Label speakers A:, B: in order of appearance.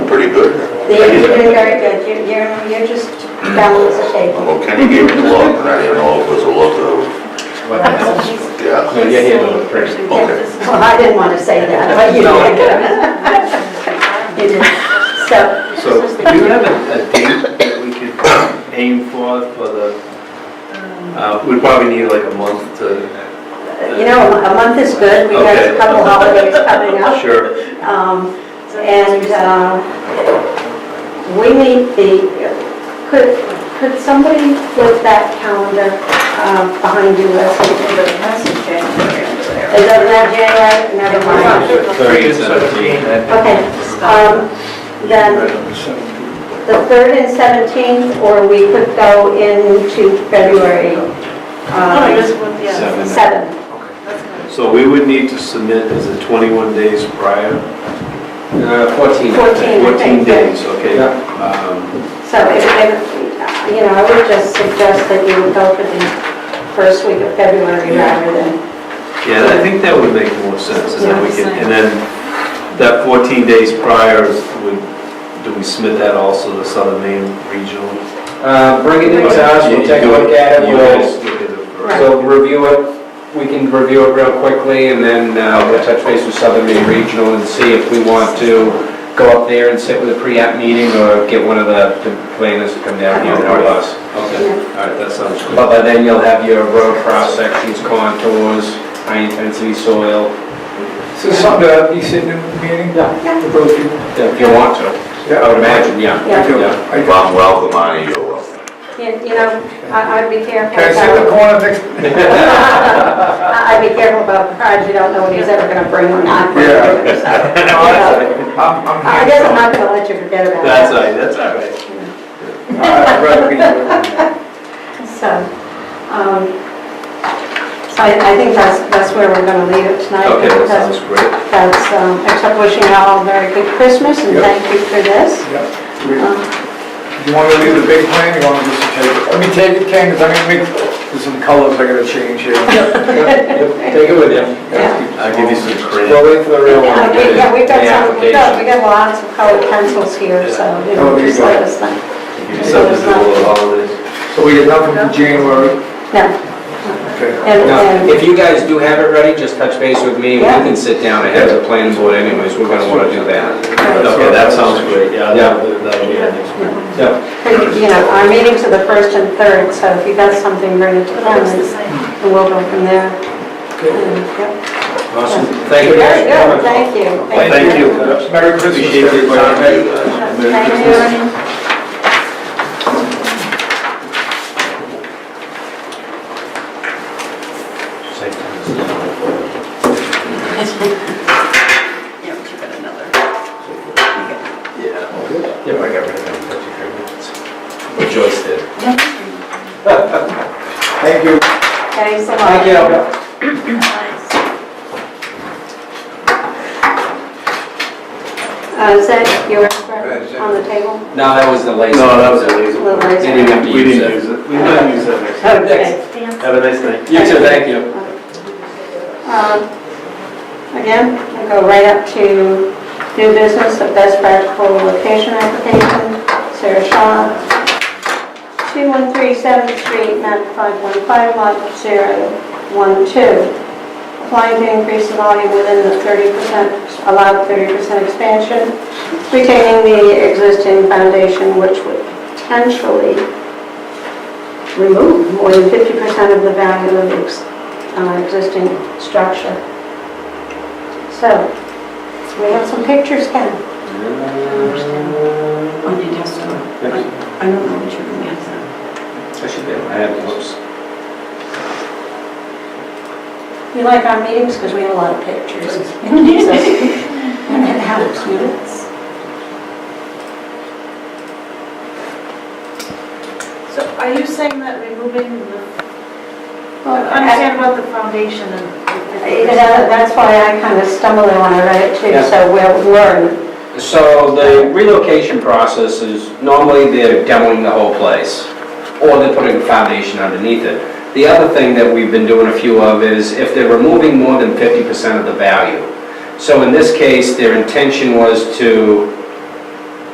A: They're doing very good. You're, you're- you're just balance the table.
B: Well, Kenny gave me the look, and I didn't know if it was a look of,
C: What else?
B: yeah.
C: No, yeah, yeah, no, first.
B: Okay.
A: Well, I didn't want to say that, but you
C: No.
A: did. You did. So,
C: So do you have a a date that we could aim for, for the, uh, we probably need like a month to,
A: you know, a month is good. We got a
C: Okay.
A: couple holidays coming up.
C: sure.
A: Um, And uh, we need the, could, could somebody put that calendar um, behind you? Is that not January? Never mind.
C: Thirty, seventeen.
A: Okay. um, Then the 3rd and 17th, or we could go into February
D: Oh,
A: um,
D: this one, yeah.
A: 7th.
D: That's good.
E: So we would need to submit, is it 21 days prior?
C: Uh,
A: 14,
C: fourteen.
A: I think.
E: 14 days, okay?
C: Yeah.
E: Um,
A: So, if- if- you know, I would just suggest that you would go for the first week of February rather than
E: Yeah, I think that would make more sense, and then we can, and then that 14 days prior, is- would- do we submit that also to Southern Maine Regional?
C: Uh, bring it in to us, we'll take a look at it,
E: You
C: we'll,
E: guys look at it first.
A: Right.
C: we'll review it, we can review it real quickly, and then, uh, we'll touch base with Southern Maine Regional and see if we want to go up there and sit with a pre-app meeting, or get one of the the planners to come down here and help us.
E: Okay, all right, that sounds good.
C: But by then you'll have your road cross sections, contours, high intensity soil,
F: So something to be sitting in the meeting?
C: Yeah.
F: With those people?
C: if you want to. I would imagine, yeah.
A: Yeah.
C: Yeah.
B: If I'm welcome, I you're welcome.
A: You you know, I- I'd be careful
F: Can I sit in the
A: about,
F: corner next?
A: I- I'd be careful about cards, you don't know what he's ever gonna bring or not bring. So,
F: I'm, I'm
A: I guess I'm not gonna let you forget about that.
E: That's all right, that's all right.
F: I'd rather be there.
A: So, um, so I I think that's, that's where we're gonna leave it tonight.
E: Okay, that
A: because
E: sounds great.
A: That's, um, except wishing you all a very good Christmas and
F: Yep.
A: thank you for this.
F: Yeah. We-
A: Um,
F: You want to do the big plan, you want to just take it? Let me take it, Ken, 'cause I'm gonna make, there's some colors I gotta change here.
C: Take it with you.
A: Yeah.
E: I'll give you some credit.
C: We'll wait for the real one.
A: Uh, we- Yeah, we've got
C: the
A: some, we've got, we
C: application.
A: got lots of colored pencils here, so, you know,
F: Oh, there you
A: just
F: go.
A: let us know.
E: Give you something to do over the holidays.
F: So we get nothing for January,
A: No,
F: okay?
A: and,
C: Now,
A: and.
C: If you guys do have it ready, just touch base with me, we
A: Yeah.
C: can sit down ahead of the planning board anyways, we're gonna wanna do that.
E: Okay, that sounds great, yeah,
C: Yeah.
E: that'll that'll be our next one.
C: Yeah.
A: You know, our meetings are the first and third, so if you got something, bring it to
D: But it
A: them,
D: looks the
A: and
D: same.
A: we'll go from there. And, yep.
C: Awesome, thank you
A: Very
C: guys for
A: good,
C: coming.
A: thank you.
E: Thank you.
F: Merry Christmas,
E: Appreciate your
F: everybody.
E: time.
B: Thank you, guys.
E: Merry Christmas.
A: Thank you.
D: Yeah, but you got another.
C: Yeah. Yeah, I got rid of it. Joyce did.
F: Thank you.
A: Thanks a lot.
C: Thank you.
D: Nice.
A: Uh, is that yours Brett, on the table?
C: No, that was the laser.
E: No, that was the laser.
A: The
C: They didn't
A: laser?
C: have to use it.
E: it. We might use that next
A: Okay.
E: Have a nice night.
C: You too, thank you.
A: Um, Again, I go right up to new business, the best practical location application, Sarah Shaw, 213 7th Street, map 515, lot 012. Applying to increase the volume within the 30%, allowed 30% expansion, retaining the existing foundation, which would potentially remove more than 50% of the value of the ex- uh, existing structure. So, we have some pictures, Ken.
D: On your desktop. I don't know what you're gonna get.
C: I should be, I have those.
A: We like our meetings because we have a lot of pictures. And it helps you.
D: So are you saying that removing the, I
A: Uh,
D: understand about the foundation and.
A: That's why I kind of stumbled when I read it too, so we'll learn.
C: So the relocation process is, normally they're demoing the whole place, or they're putting a foundation underneath it. The other thing that we've been doing a few of is if they're removing more than 50% of the value. So in this case, their intention was to